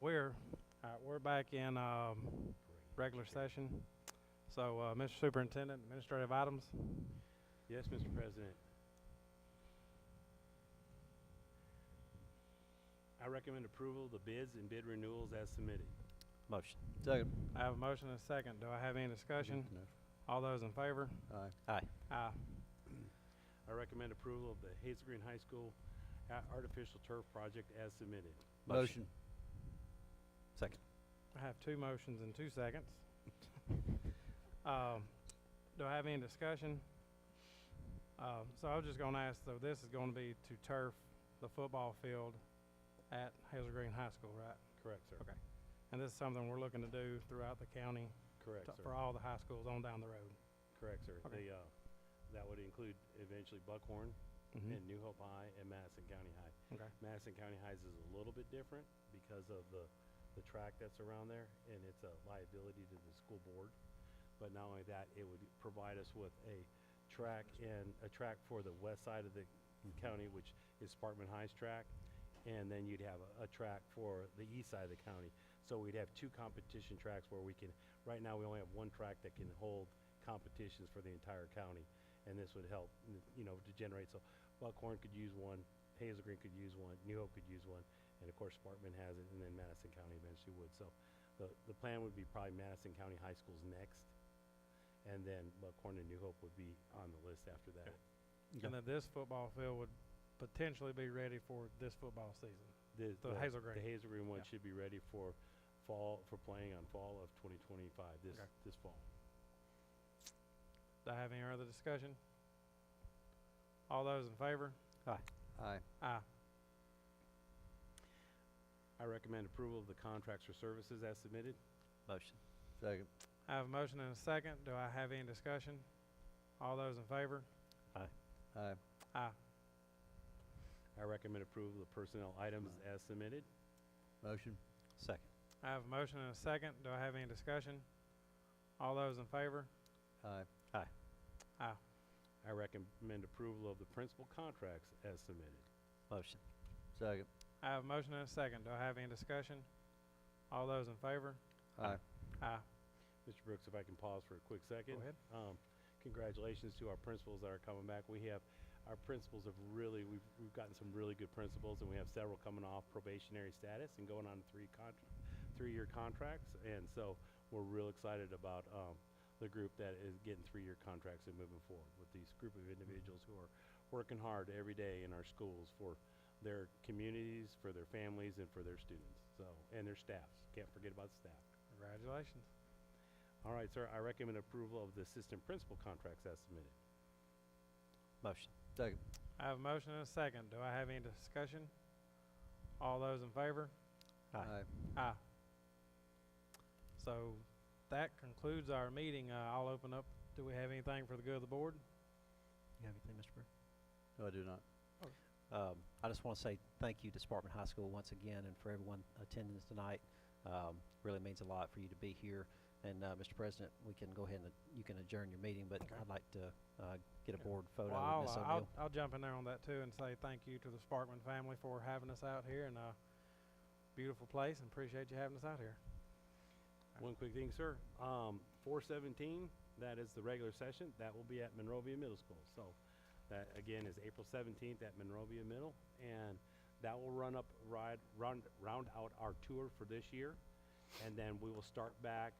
We're, all right, we're back in, um, regular session. So, uh, Mr. Superintendent, administrative items, Yes, Mr. President. I recommend approval of the bids and bid renewals as submitted. Motion. Second. I have a motion and a second. Do I have any discussion? All those in favor? Aye. Aye. Aye. I recommend approval of the Hazel Green High School a- artificial turf project as submitted. Motion. Second. I have two motions and two seconds. Um, do I have any discussion? Uh, so I was just gonna ask, so this is gonna be to turf the football field at Hazel Green High School, right? Correct, sir. Okay. And this is something we're looking to do throughout the county, Correct, to- sir. for all the high schools on down the road. Correct, sir. Okay. The, uh, that would include eventually Buckhorn and New Hope High and Madison County High. Mm-hmm. Okay, Madison County Highs is a little bit different because of the, the track that's around there, and it's a liability to the school board. But not only that, it would provide us with a track and, a track for the west side of the county, which is Sparkman High's track, and then you'd have a, a track for the east side of the county. So we'd have two competition tracks where we can, right now, we only have one track that can hold competitions for the entire county, and this would help, n- you know, to generate, so Buckhorn could use one, Hazel Green could use one, New Hope could use one, and of course, Sparkman has it, and then Madison County eventually would, so the, the plan would be probably Madison County High School's next, and then Buckhorn and New Hope would be on the list after that. and then this football field would potentially be ready for this football season. The, The Hazel Green. The Hazel Green one Yeah. should be ready for fall, for playing on fall of twenty twenty-five, this, Okay. this fall. Do I have any other discussion? All those in favor? Aye. Aye. I recommend approval of the contracts for services as submitted. Motion. Second. I have a motion and a second. Do I have any discussion? All those in favor? Aye. Aye. I recommend approval of the personnel items as submitted. Motion. Second. I have a motion and a second. Do I have any discussion? All those in favor? Aye. Aye. I recommend approval of the principal contracts as submitted. Motion. Second. I have a motion and a second. Do I have any discussion? All those in favor? Aye. Aye. Mr. Brooks, if I can pause for a quick Go second. ahead. Um, congratulations to our principals that are coming back. We have, our principals have really, we've, we've gotten some really good principals and we have several coming off probationary status and going on three con, three-year contracts. And so we're real excited about, um, the group that is getting three-year contracts and moving forward with these group of individuals who are working hard every day in our schools for their communities, for their families and for their students. So, and their staffs. Can't forget about the staff. Congratulations. All right, sir, I recommend approval of the assistant principal contracts as submitted. Motion. Second. I have a motion and a second. Do I have any discussion? All those in favor? Aye. Ah. So that concludes our meeting. Uh, I'll open up. Do we have anything for the good of the board? You have anything, Mr. Burr? No, I do not. Um, I just want to say thank you to Sparkman High School once again and for everyone attending tonight. Um, really means a lot for you to be here. And, uh, Mr. President, we can go ahead and, you can adjourn your meeting, but Okay. I'd like to, uh, get a Yeah. board photo Well, of Ms. I'll, uh, I'll, O'Neill. I'll jump in there on that too and say thank you to the Sparkman family for having us out here and uh, beautiful place and appreciate you having us out here. One quick thing, sir, um, four seventeen, that is the regular session, that will be at Monrovia Middle School, so that again is April seventeenth at Monrovia Middle, and that will run up, ride, round, round out our tour for this year, and then we will start back